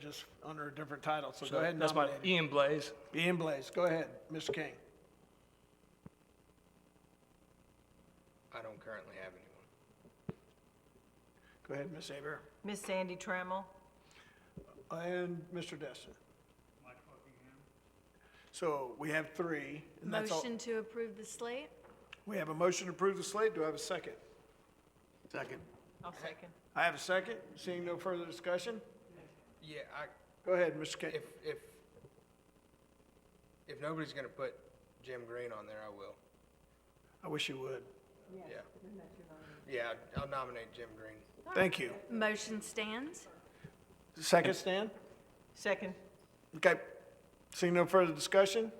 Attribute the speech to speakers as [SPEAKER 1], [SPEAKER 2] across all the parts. [SPEAKER 1] just under a different title, so go
[SPEAKER 2] So
[SPEAKER 1] ahead and
[SPEAKER 2] that's my,
[SPEAKER 1] nominate him.
[SPEAKER 2] Ian Blaze.
[SPEAKER 1] Ian Blaze, go ahead, Mr. King.
[SPEAKER 3] I don't currently have anyone.
[SPEAKER 1] Go ahead, Ms. Aber,
[SPEAKER 4] Miss Sandy Trammell,
[SPEAKER 1] and Mr. Destin. Mike Buckingham. So we have three, and that's all.
[SPEAKER 5] Motion to approve the slate?
[SPEAKER 1] We have a motion to approve the slate. Do I have a second? Second.
[SPEAKER 4] I'll second.
[SPEAKER 1] I have a second. Seeing no further discussion,
[SPEAKER 3] Yeah, I,
[SPEAKER 1] go ahead, Mr. King.
[SPEAKER 3] if, if, if nobody's gonna put Jim Green on there, I will,
[SPEAKER 1] I wish you would.
[SPEAKER 3] yeah. Yeah, I'd- I'll nominate Jim Green.
[SPEAKER 1] Thank you.
[SPEAKER 5] Motion stands?
[SPEAKER 1] Second stand?
[SPEAKER 4] Second,
[SPEAKER 1] Okay. Seeing no further discussion?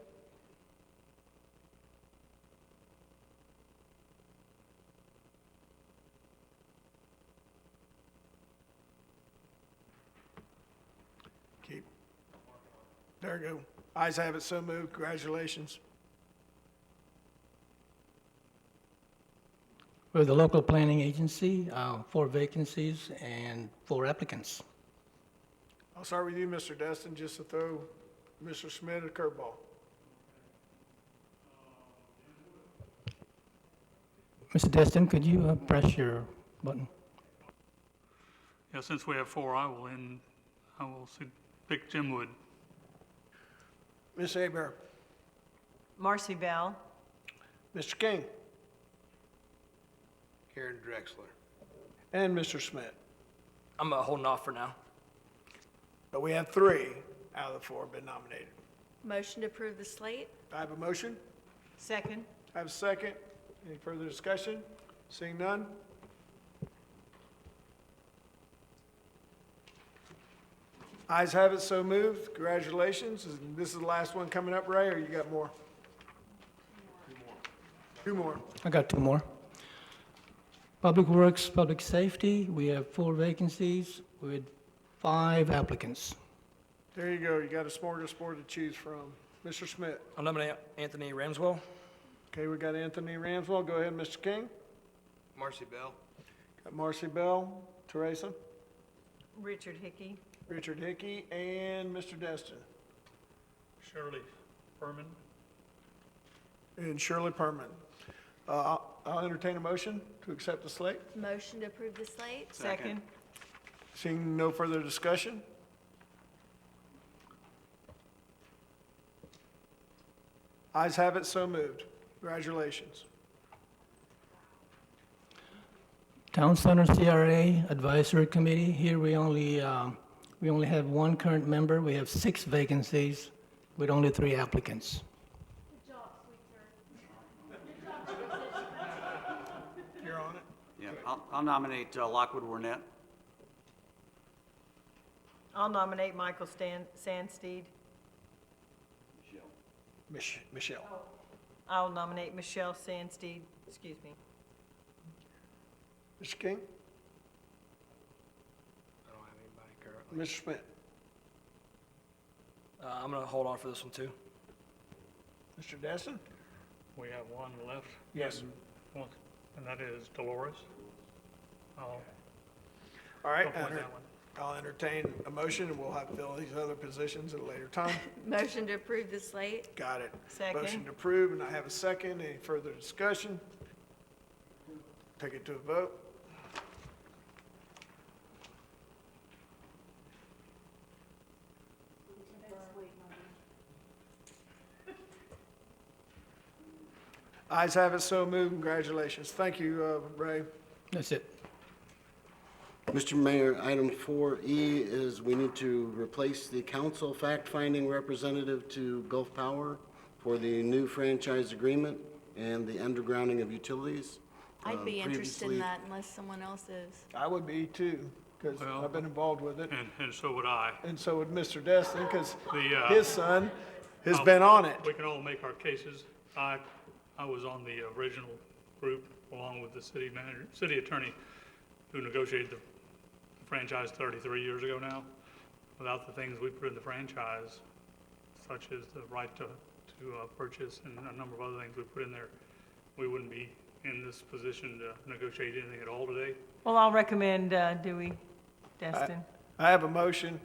[SPEAKER 1] Keep. There you go. Eyes have it, so moved. Congratulations.
[SPEAKER 6] We're the local planning agency, uh, four vacancies and four applicants.
[SPEAKER 1] I'll start with you, Mr. Destin, just to throw Mr. Smith a curveball.
[SPEAKER 6] Mr. Destin, could you uh, press your button?
[SPEAKER 7] Yeah, since we have four, I will end, I will su- pick Jim Wood.
[SPEAKER 1] Ms. Aber,
[SPEAKER 4] Marcy Bell,
[SPEAKER 1] Mr. King,
[SPEAKER 3] Karen Drexler.
[SPEAKER 1] and Mr. Smith.
[SPEAKER 2] I'm uh, holding off for now.
[SPEAKER 1] But we have three out of the four been nominated.
[SPEAKER 5] Motion to approve the slate?
[SPEAKER 1] I have a motion.
[SPEAKER 4] second.
[SPEAKER 1] I have a second. Any further discussion? Seeing none? Eyes have it, so moved. Congratulations. And This is the last one coming up, Ray, or you got more? Two more.
[SPEAKER 6] I got two more. Public Works, Public Safety, we have four vacancies with five applicants.
[SPEAKER 1] There you go. You got a smorgasbord to choose from. Mr. Smith.
[SPEAKER 2] I'll nominate Anthony Ramswell.
[SPEAKER 1] Okay, we got Anthony Ramswell. Go ahead, Mr. King.
[SPEAKER 3] Marcy Bell.
[SPEAKER 1] Got Marcy Bell, Teresa,
[SPEAKER 4] Richard Hickey,
[SPEAKER 1] Richard Hickey, and Mr. Destin.
[SPEAKER 7] Shirley Furman.
[SPEAKER 1] And Shirley Perman. Uh, I'll entertain a motion to accept the slate.
[SPEAKER 5] Motion to approve the slate?
[SPEAKER 4] second.
[SPEAKER 1] Seeing no further discussion? Eyes have it, so moved. Congratulations.
[SPEAKER 6] Town Center CRA Advisory Committee, here we only, um, we only have one current member. We have six vacancies with only three applicants.
[SPEAKER 1] You're on it.
[SPEAKER 8] Yeah, I'll I'll nominate uh, Lockwood Warnett.
[SPEAKER 4] I'll nominate Michael Stan, Sandsteed.
[SPEAKER 1] Mich- Michelle.
[SPEAKER 4] I'll nominate Michelle Sandsteed, excuse me.
[SPEAKER 1] Mr. King?
[SPEAKER 3] I don't have anybody currently.
[SPEAKER 1] Mr. Smith?
[SPEAKER 2] Uh, I'm gonna hold on for this one too.
[SPEAKER 1] Mr. Destin?
[SPEAKER 7] We have one left,
[SPEAKER 1] Yes.
[SPEAKER 7] one, and that is Dolores. I'll
[SPEAKER 1] All right,
[SPEAKER 7] go for
[SPEAKER 1] enter-
[SPEAKER 7] that one.
[SPEAKER 1] I'll entertain a motion, and we'll have to fill these other positions at a later time.
[SPEAKER 5] Motion to approve the slate?
[SPEAKER 1] Got it.
[SPEAKER 4] Second.
[SPEAKER 1] Motion to approve, and I have a second. Any further discussion? Take it to a vote. Eyes have it, so moved. Congratulations. Thank you, uh, Ray.
[SPEAKER 6] That's it.
[SPEAKER 9] Mr. Mayor, item 4E is we need to replace the council fact-finding representative to Gulf Power for the new franchise agreement and the undergrounding of utilities.
[SPEAKER 5] I'd be
[SPEAKER 9] Um,
[SPEAKER 5] interested in
[SPEAKER 9] previously-
[SPEAKER 5] that unless someone else is.
[SPEAKER 1] I would be too, because
[SPEAKER 7] Well-
[SPEAKER 1] I've been involved with it,
[SPEAKER 7] And, and so would I.
[SPEAKER 1] and so would Mr. Destin, because
[SPEAKER 7] The, uh,
[SPEAKER 1] his son has
[SPEAKER 7] I'll-
[SPEAKER 1] been on it.
[SPEAKER 7] We can all make our cases. I, I was on the original group along with the city manager, city attorney who negotiated the franchise 33 years ago now. Without the things we put in the franchise, such as the right to, to uh, purchase and a number of other things we put in there, we wouldn't be in this position to negotiate anything at all today.
[SPEAKER 4] Well, I'll recommend uh, Dewey Destin.
[SPEAKER 1] I have a motion